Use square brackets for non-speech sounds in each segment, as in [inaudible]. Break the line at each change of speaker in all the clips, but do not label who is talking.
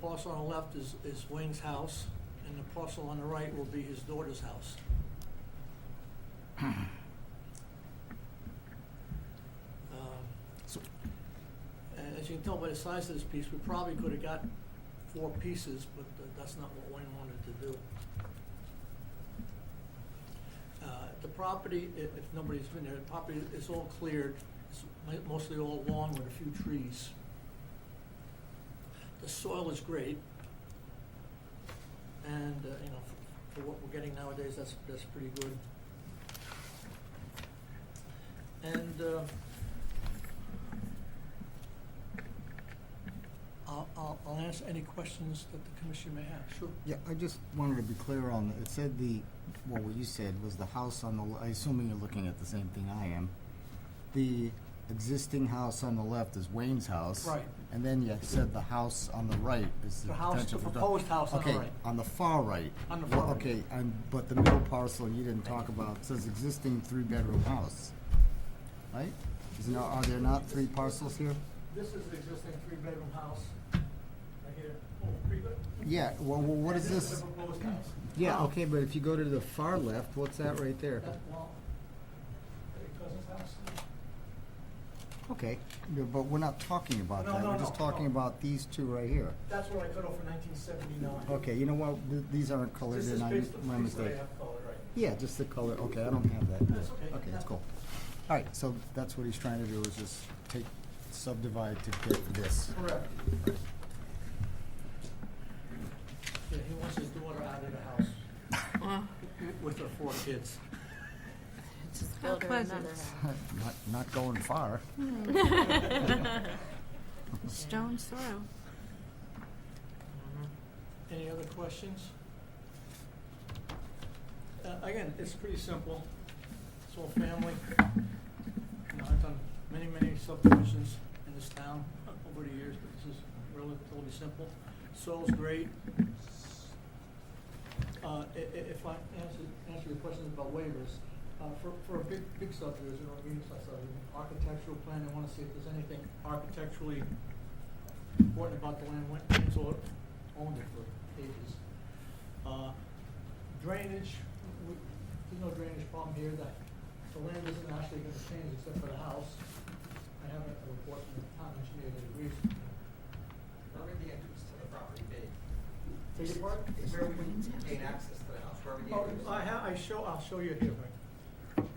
parcel on the left is, is Wayne's house, and the parcel on the right will be his daughter's house. Um, And as you can tell by the size of this piece, we probably could have got four pieces, but uh, that's not what Wayne wanted to do. Uh, The property, i- if nobody's been there, the property is all cleared, it's mi- mostly all lawn with a few trees. The soil is great. And, uh, you know, f- for what we're getting nowadays, that's, that's pretty good. And, uh, I'll, I'll, I'll answer any questions that the commission may have, sure.
Yeah, I just wanted to be clear on, it said the, well, what you said was the house on the, le- I assuming you're looking at the same thing I am. The existing house on the left is Wayne's house.
Right.
And then you said the house on the right is the
The house-
potential.
the
for-
proposed house on the
Okay,
right.
on the far right.
On the
Well,
far right.
Okay, and, but the middle parcel you didn't talk about says existing three-bedroom house, right? Is there, are there not three parcels here?
This is the existing three-bedroom house, right here. Oh, pretty good.
Yeah, well, well, what is this?
the proposed house.
Yeah, okay, but if you go to the far left, what's that right there?
That wall, your cousin's house?
Okay, yeah, but we're not talking about
No,
that,
no,
we're just
no,
talking
no.
about these two right here.
That's what I cut off in nineteen seventy-nine.
Okay, you know what, Th- these aren't colored
This is
in, I,
based on
my
the piece that
mistake.
I have colored, right.
Yeah, just the color, okay, I don't have that.
That's okay.
Okay, that's cool. All right, so that's what he's trying to do, is just take, subdivide to get this. [laughs]
Correct. Yeah, he wants his daughter out of the house with her four kids.
Just
How
build her
pleasant.
another
Not, not going far.
house. [laughs] Stone soil.
Any other questions? Uh, again, it's pretty simple. It's all family. You know, I've done many, many subdivisions in this town over the years, but this is relatively simple. Soil's great. Uh, i- i- if I answer, answer your questions about waivers, uh, for, for a big, big subdivision or medium-sized subdivision, architectural plan, I wanna see if there's anything architecturally important about the land, when it's all owned it for ages. Uh, Drainage, we, there's no drainage problem here, that, the land isn't actually gonna change except for the house. I have a report from the town engineer that agrees.
Where would the entrance to the property be?
Take your part?
Where would we gain access to the house, where would the
Oh,
entrance?
I ha, I show, I'll show you here, Frank.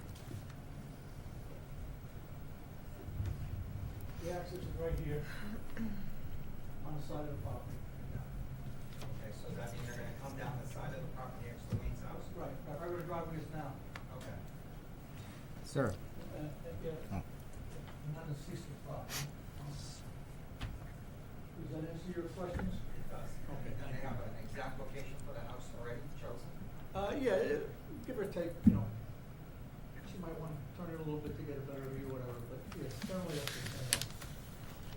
The access is right here, on the side of the property.
Okay, so that means you're gonna come down the side of the property next to Wayne's house?
Right, right where the driveway is now,
Okay.
Sir,
uh, uh, yeah,
oh,
not a ceasing property. Does that answer your questions?
It does.
Okay,
And
thank
they
you.
have an exact location for the house already chosen?
Uh, yeah, it- give or take, you know, she might wanna turn it a little bit to get a better view, whatever, but yeah, generally that's the same.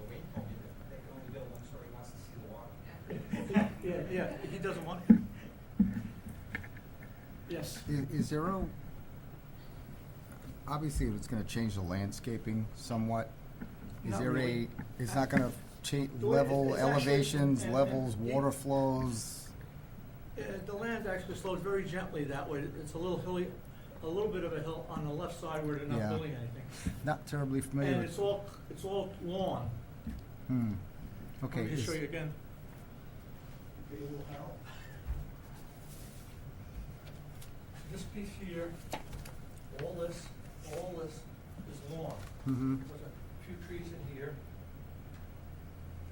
Well, Wayne told me that they can only build one story, he wants to see the water.
Yeah,
[laughs]
yeah, he doesn't want. Yes.
i- is there a, obviously it's gonna change the landscaping somewhat. Is
Not
there
really.
a, it's not gonna change
The way it-
level
it's actually-
elevations,
and- and
levels,
the-
water flows?
Uh, The land actually slows very gently that way. It's a little hilly, a little bit of a hill on the left side where they're not
Yeah.
building anything.
Not terribly familiar.
And
with-
it's all, it's all lawn.
Hmm,
Let me
okay.
just
is-
show you again. Maybe it will help. This piece here, all this, all this is lawn.
Mhm.
There's a few trees in here.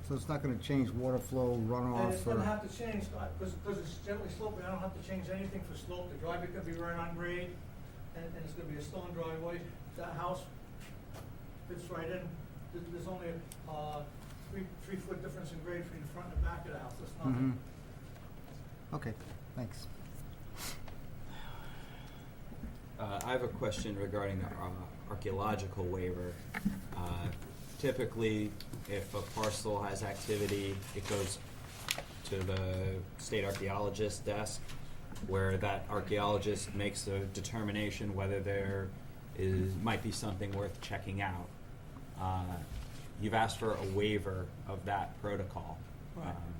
So it's not gonna change water flow,
And it's
runoff,
gonna
or,
have to change, because, because it's gently sloping, I don't have to change anything for slope, the driveway could be right on grade, and, and it's gonna be a stone driveway, that house fits right in, there's, there's only, uh, three, three foot difference in grade between the front and the back of the house, it's
Mhm.
nothing.
okay, thanks.
Uh, I have a question regarding the uh, archaeological waiver. Uh, Typically, if a parcel has activity, it goes to the state archaeologist's desk, where that archaeologist makes a determination whether there is, might be something worth checking out. Uh, You've asked for a waiver of that protocol.
Right.
Um,